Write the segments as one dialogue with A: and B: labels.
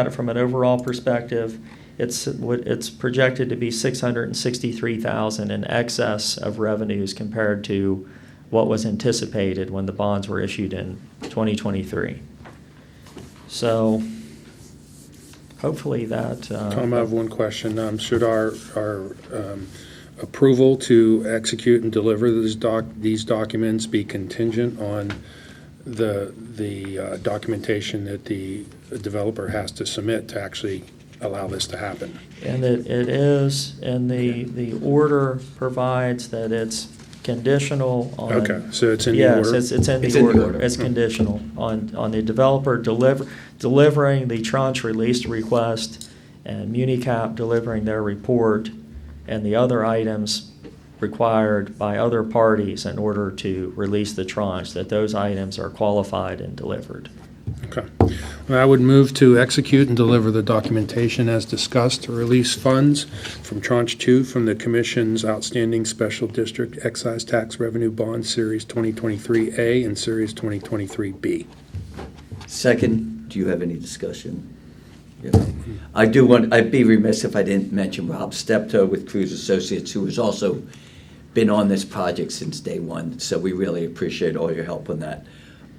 A: at it from an overall perspective, it's, it's projected to be 663,000 in excess of revenues compared to what was anticipated when the bonds were issued in 2023. So hopefully that. uh,
B: Tom, I have one question. Um, Should our, our um, approval to execute and deliver these doc, these documents be contingent on the, the uh, documentation that the developer has to submit to actually allow this to happen?
A: And it, it is, and the, the order provides that it's conditional on.
B: Okay, so it's in the
A: Yes,
B: order? Hmm.
A: it's, it's in
C: It's
A: the
C: in the
A: order.
C: order.
A: It's conditional on, on the developer deliver, delivering the tranche release request and MuniCap delivering their report and the other items required by other parties in order to release the tranche, that those items are qualified and delivered.
B: Okay. Well, I would move to execute and deliver the documentation as discussed to release funds from Tranche 2 from the Commission's outstanding Special District Excise Tax Revenue Bond Series 2023A and Series 2023B.
C: Second, do you have any discussion? Yeah. I do want, I'd be remiss if I didn't mention Rob Steptoe with Cruz Associates, who has also been on this project since day one, so we really appreciate all your help on that.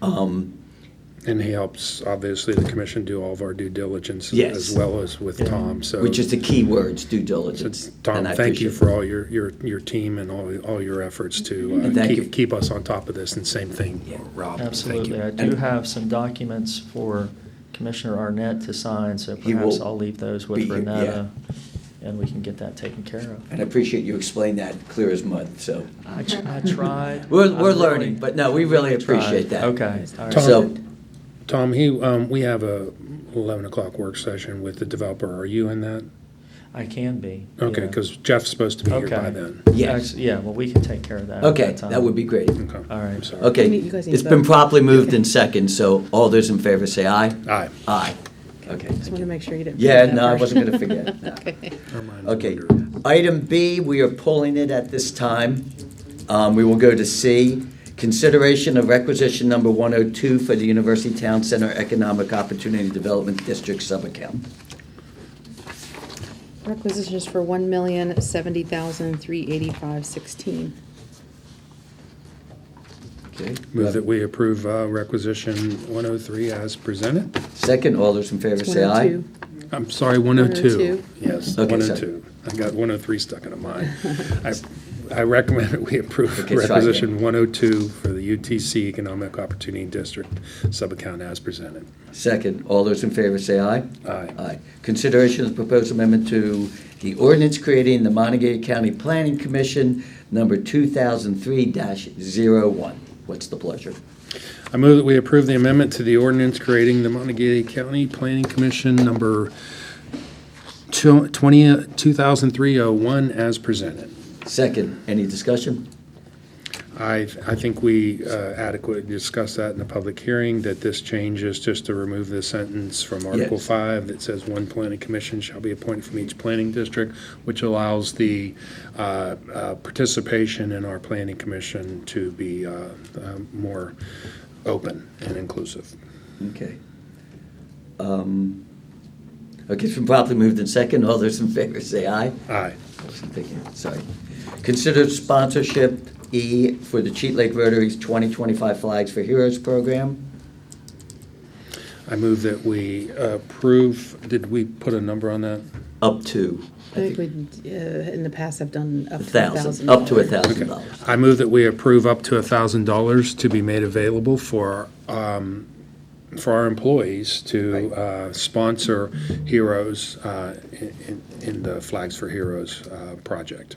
C: Um,
B: And he helps, obviously, the Commission do all of our due diligence
C: Yes.
B: as well as with
A: Yeah.
B: Tom, so.
C: Which is the key words, due
B: so,
C: diligence.
B: Tom,
C: and I
B: thank you
C: appreciate
B: for all your, your, your team and all, all your efforts to
C: And
B: uh,
C: thank you.
B: keep, keep us on top of this, and same thing,
C: Yeah.
B: Rob. thank you.
A: Absolutely. I do
C: And-
A: have some documents for Commissioner Arnett to sign, so
C: He
A: perhaps
C: will
A: I'll leave those
C: be
A: with
C: here, yeah.
A: Renetta, and we can get that taken care of.
C: And I appreciate you explaining that clear as mud, so.
A: I tr- I tried.
C: We're,
A: I
C: we're
A: really-
C: learning, but no, we really
A: tried.
C: appreciate that.
A: Okay. all right.
B: Tom-
C: So,
B: Tom, he, um, we have a eleven o'clock work session with the developer. Are you in that?
A: I can be.
B: Okay,
A: yeah.
B: because Jeff's supposed to be here by
A: Okay.
B: then.
C: yes,
A: Actu- Yeah, well, we can take care of that. at
C: okay, that
A: time.
C: would be great.
B: Okay.
A: All right.
B: I'm sorry.
C: Okay,
D: You guys need
C: it's
D: to
C: been
D: vote.
C: properly moved in second, so all those in favor say aye.
B: Aye.
C: Aye. Okay.
D: Just want to make sure you didn't.
C: Yeah,
D: forget that
C: no, I
D: part.
C: wasn't gonna forget, no.
D: Okay.
B: Our minds
C: Okay,
B: wander.
C: item B, we are pulling it at this time. Um, we will go to C, consideration of requisition number one oh two for the University Town Center Economic Opportunity Development District subaccount.
D: Requisitions for one million seventy thousand three eighty-five sixteen.
C: Okay.
B: Move that we approve uh, requisition one oh three as presented?
C: Second, all those in favor say aye.
B: I'm sorry, one oh two.
D: 102.
B: Yes,
C: Okay,
B: one oh
C: sorry.
B: two. I got one oh three stuck in my mind. I, I recommend that we approve
C: Okay, sorry.
B: requisition one oh two for the UTC Economic Opportunity District subaccount as presented.
C: Second, all those in favor say aye.
B: Aye.
C: Aye. Consideration of proposed amendment to the ordinance creating the Montague County Planning Commission, number two thousand three dash zero one. What's the pleasure?
B: I move that we approve the amendment to the ordinance creating the Montague County Planning Commission number two- 20 2003-01 as presented.
C: Second, any discussion?
B: I, I think we uh, adequately discussed that in the public hearing, that this change is just to remove the sentence from Article
C: Yes.
B: 5 that says one planning commission shall be appointed from each planning district, which allows the uh, uh, participation in our planning commission to be uh, uh, more open and inclusive.
C: Okay. Um, Okay, it's been properly moved in second. All those in favor say aye.
B: Aye.
C: I wasn't thinking, Sorry. Consider sponsorship E for the Cheat Lake Rotary's 2025 Flags for Heroes program.
B: I move that we approve, did we put a number on that?
C: Up to,
D: I
C: I
D: think we,
C: think,
D: uh, in the past have done up
C: a
D: to a thousand.
C: thousand, up to a
D: dollars.
C: thousand dollars.
B: I move that we approve up to $1,000 to be made available for, um, for our employees to uh, sponsor heroes uh, in- in- in the Flags for Heroes uh, project.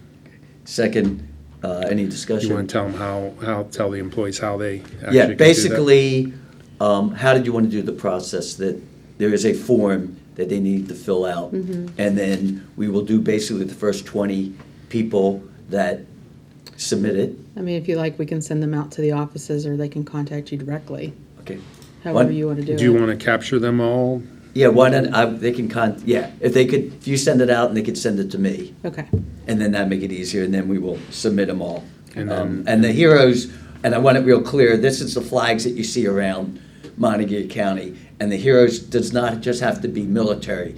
C: Second, uh, any
B: You want
C: discussion?
B: to tell them how, how, tell the employees how they actually can do
C: Yeah,
B: that?
C: basically, um, how did you want to do the process that there is a form that they need to fill out? And then we will do basically the first 20 people that submit it.
D: I mean, if you like, we can send them out to the offices or they can contact you directly,
C: Okay.
D: however
C: One-
D: you want to do it.
B: Do you want to capture them all?
C: Yeah, why not, I, they can con, yeah, if they could, if you send it out and they could send it to me,
D: Okay,
C: and then that make it easier, and then we will submit them all.
B: And
C: Um,
B: then-
C: And the heroes, and I want it real clear, this is the flags that you see around Montague County, And the heroes does not just have to be military.